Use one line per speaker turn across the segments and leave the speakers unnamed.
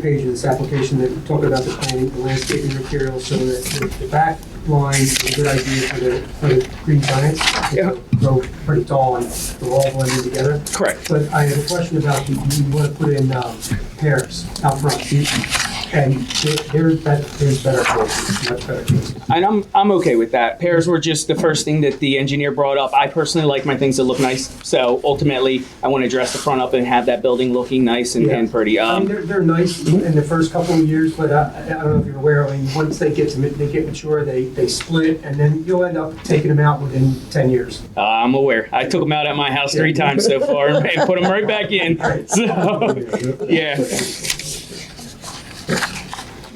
page of this application that talk about the planning, the landscaping materials, so that the- the back line is a good idea for the, for the green giants. They
Yeah.
Grow pretty tall and they're all blended together.
Correct.
But I have a question about, the- you want to put in um, pears out front. And there- there, that, there's better choices, much better choices.
And I'm, I'm okay with that. Pears were just the first thing that the engineer brought up. I personally like my things that look nice. So ultimately, I want to dress the front up and have that building looking nice and,
Yeah.
and pretty.
I mean,
Um,
they're, they're nice in the first couple of years, but I, I don't know if you're aware, I mean, once they get to, ma- they get mature, they, they split, and then you'll end up taking them out within ten years.
uh, I'm aware. I took them out at my house three times so far and put them right back in. So, yeah.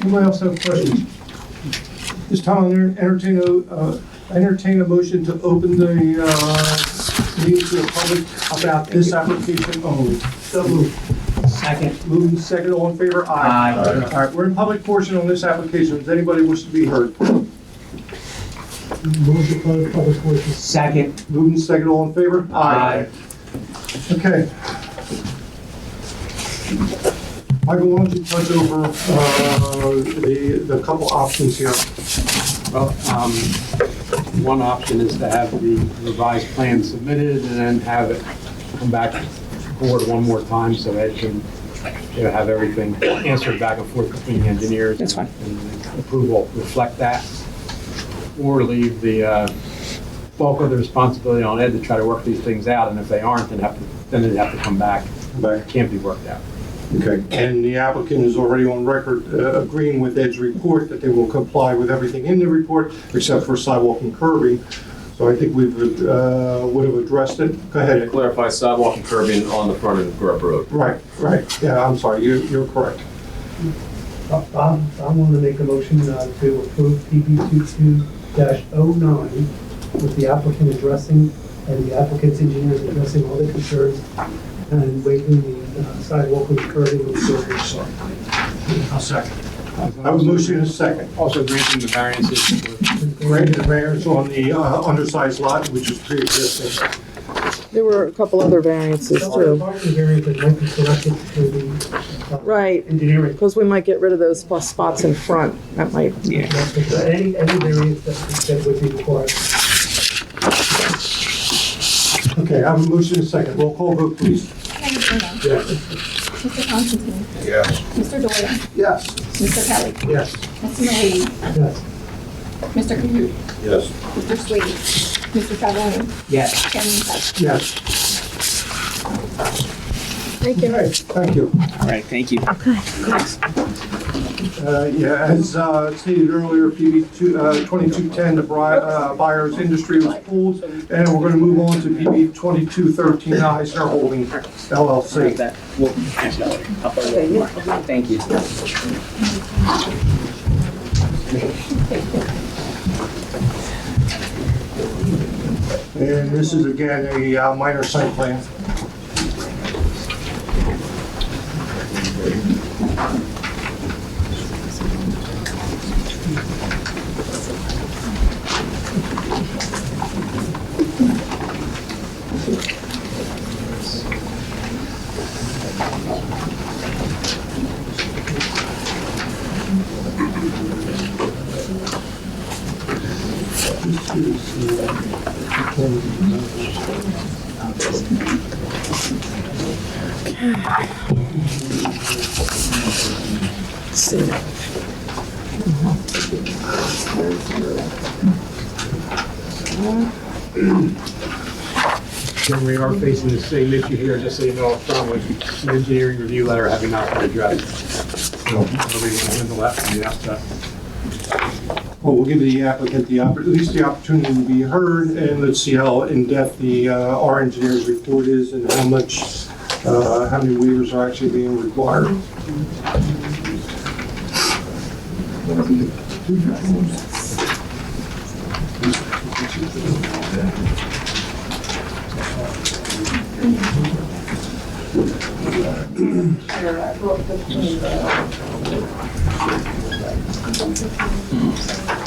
Anybody else have questions? This time, I'll entertain a, uh, entertain a motion to open the, uh, meeting to the public about this application only. So moved. Second. Moved and second, all in favor? Aye. All right, we're in public portion on this application. Does anybody wish to be heard?
Move the close public portion.
Second. Moved and second, all in favor? Aye. Okay. Michael, why don't you touch over, uh, the, the couple options here?
Well, um, one option is to have the revised plan submitted and then have it come back forward one more time so Ed can, you know, have everything answered back and forth between the engineers.
That's fine.
And approval reflect that. Or leave the, uh, bulk of the responsibility on Ed to try to work these things out, and if they aren't, then have to, then they'd have to come back.
Back.
Can't be worked out.
Okay, and the applicant is already on record uh, agreeing with Ed's report that they will comply with everything in the report except for sidewalk and curbing. So I think we've, uh, would have addressed it. Go ahead, Ed.
clarify sidewalk and curbing on the front of Grub Road.
Right, right, yeah, I'm sorry, you, you're correct.
Uh, I'm, I'm going to make a motion uh, to approve PB 22-09 with the applicant addressing and the applicant's engineers addressing all the concerns and waiving the uh, sidewalk and curbing and so on.
I'll second.
I was motion in a second.
Also granting the variances for
Granted, the variance on the uh, undersized lot, which is pre-existing.
There were a couple other variances
So,
too.
Part of the variance that might be corrected through the uh,
Right,
engineering.
because we might get rid of those plus spots in front. That might,
Yeah.
So Any, any variance that that would be required.
Okay, I have a motion in a second. Roll call vote, please.
Mr. Bruno. Mr. Constantine. Mr. Doyle.
Yes.
Mr. Kelly.
Yes.
Mr. Malady.
Yes.
Mr. Kahoot.
Yes.
Mr. Swade. Mr. Travelling.
Yes.
Chairman Tuck.
Yes.
thank you.
Okay, thank you.
All right. Thank you.
Uh, Yeah, as uh, stated earlier, PB two- uh, 2210, the bri- uh, buyer's industry was pulled, and we're going to move on to PB 2213 Eisner Holding LLC.
Thank you.
And this is again a uh, minor site plan.
And we are facing the same issue here, just so you know, up front with the engineering review letter having not been addressed. So, nobody will handle that from the outset.
Well, we'll give the applicant the, oppor- at least the opportunity to be heard, and let's see how in-depth the, uh, our engineer's report is and how much, uh, how many waivers are actually being required.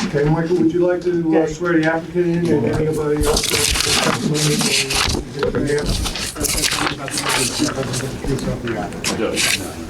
Okay, Michael, would you like to uh, swear the applicant in and anybody else? that's- that's- that's-
Yes.